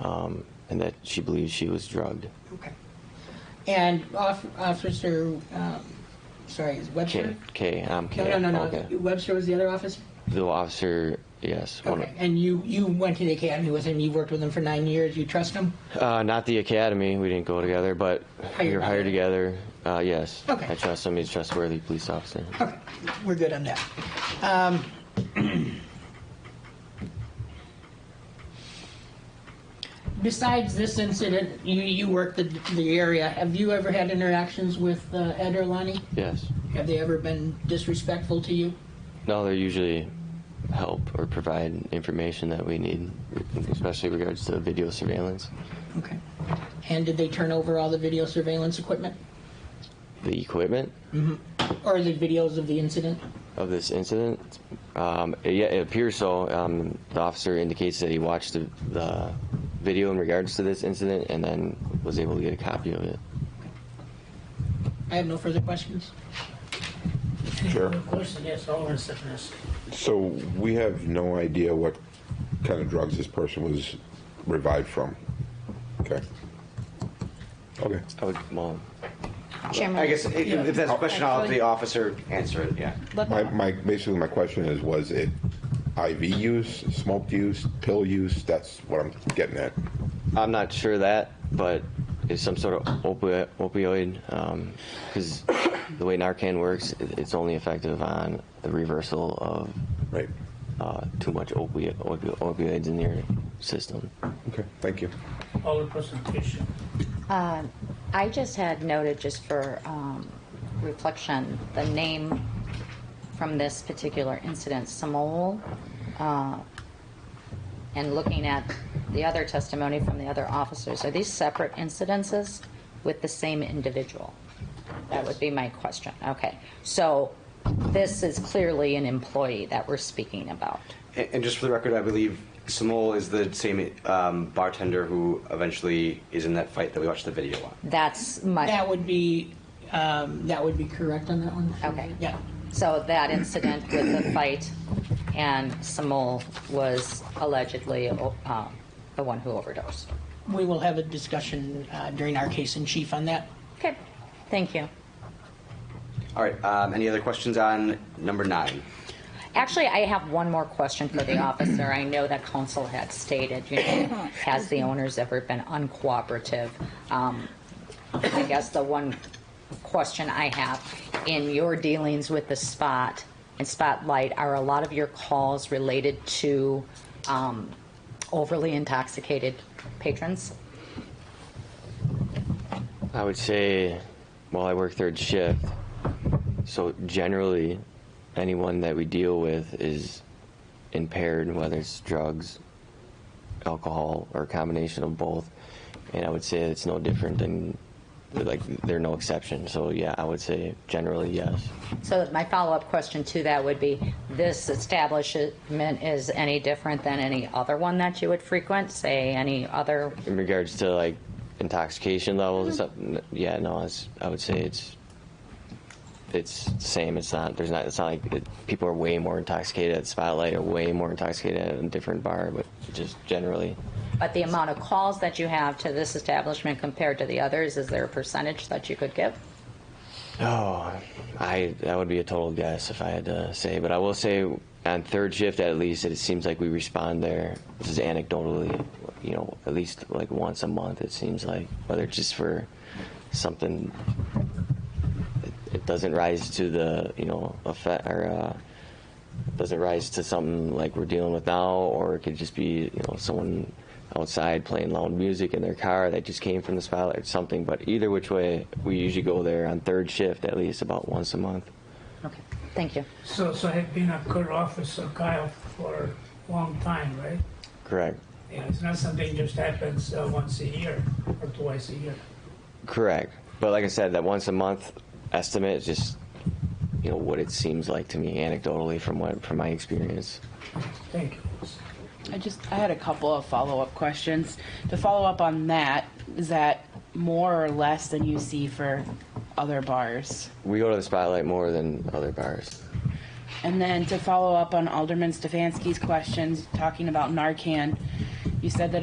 um, and that she believes she was drugged. Okay. And Off- Officer, um, sorry, is Webster? K, K, I'm K. No, no, no, Okay. no. Webster was the other officer? The officer, yes. one of- Okay. And you, you went to the academy with him, you worked with him for nine years, you trust him? Uh, not the academy. We didn't go together, but we were hired together. Uh, yes. Okay. I trust him. He's a trustworthy police officer. Okay, we're good on that. Um, Besides this incident, you, you worked the, the area, have you ever had interactions with uh, Ed or Lonnie? Yes. Have they ever been disrespectful to you? No, they usually help or provide information that we need, especially regards to video surveillance. Okay. And did they turn over all the video surveillance equipment The equipment or the videos of the incident? of this incident, um, yeah, it appears so. Um, the officer indicates that he watched the, the video in regards to this incident and then was able to get a copy of it. I have no further questions. Sure. Question, yes, Alderman Sitness. So we have no idea what kind of drugs this person was revived from. Okay. Okay. I would, well, Chairman. I guess if, if that's a question, I'll have the officer answer it, yeah. Let- My, my, basically my question is, was it IV use, smoked use, pill use? That's what I'm getting at. I'm not sure that, but it's some sort of opi- opioid because the way Narcan works, it- it's only effective on the reversal of Right. uh, too much opi- opi- opioids in your system. Okay, thank you. Alderperson Fisher. I just had noted, just for um, reflection, the name from this particular incident, Samol, uh, and looking at the other testimony from the other officers, are these separate incidences with the same individual? That would be my question. Okay. So this is clearly an employee that we're speaking about. And, and just for the record, I believe Samol is the same um, bartender who eventually is in that fight that we watched the video on. That's my. That would be, um, that would be correct on that one? Okay. Yeah. So that incident with the fight and Samol was allegedly um, the one who overdosed. We will have a discussion uh, during our case in chief on that. Okay, thank you. All right, um, any other questions on number nine? Actually, I have one more question for the officer. I know that council had stated, you know, has the owners ever been uncooperative? Um, I guess the one question I have, in your dealings with the spot and spotlight, are a lot of your calls related to um, overly intoxicated patrons? I would say, well, I work third shift, so generally, anyone that we deal with is impaired, whether it's drugs, alcohol, or a combination of both. And I would say it's no different than, like, they're no exception. So yeah, I would say generally yes. So my follow-up question to that would be, this establishment is any different than any other one that you would frequent, say, any other In regards to like intoxication levels, and stuff, n- yeah, no, it's, I would say it's it's the same. It's not there's not it's not like it, people are way more intoxicated at Spotlight or way more intoxicated at a different bar, but just generally, But the amount of calls that you have to this establishment compared to the others, is there a percentage that you could give? oh, I that would be a total guess if I had to say, but I will say on third shift at least it seems like we respond there. This is anecdotally, you know, at least like once a month it seems like whether it's just for something it doesn't rise to the you know effect or uh, doesn't rise to something like we're dealing with now, or it could just be you know someone outside playing loud music in their car that just came from the spotlight or something. But either which way, we usually go there on third shift at least about once a month. Okay, thank you. So, so had been a good officer, Kyle, for a long time, right? Correct. Yeah, it's not something just happens uh, once a year or twice a year. Correct. But like I said, that once a month estimate is just you know what it seems like to me anecdotally from what from my experience. Thank you. I just I had a couple of follow up questions. To follow up on that, is that more or less than you see for other bars? We go to the spotlight more than other bars. And then to follow up on Alderman Stefanski's questions talking about Narcan, you said that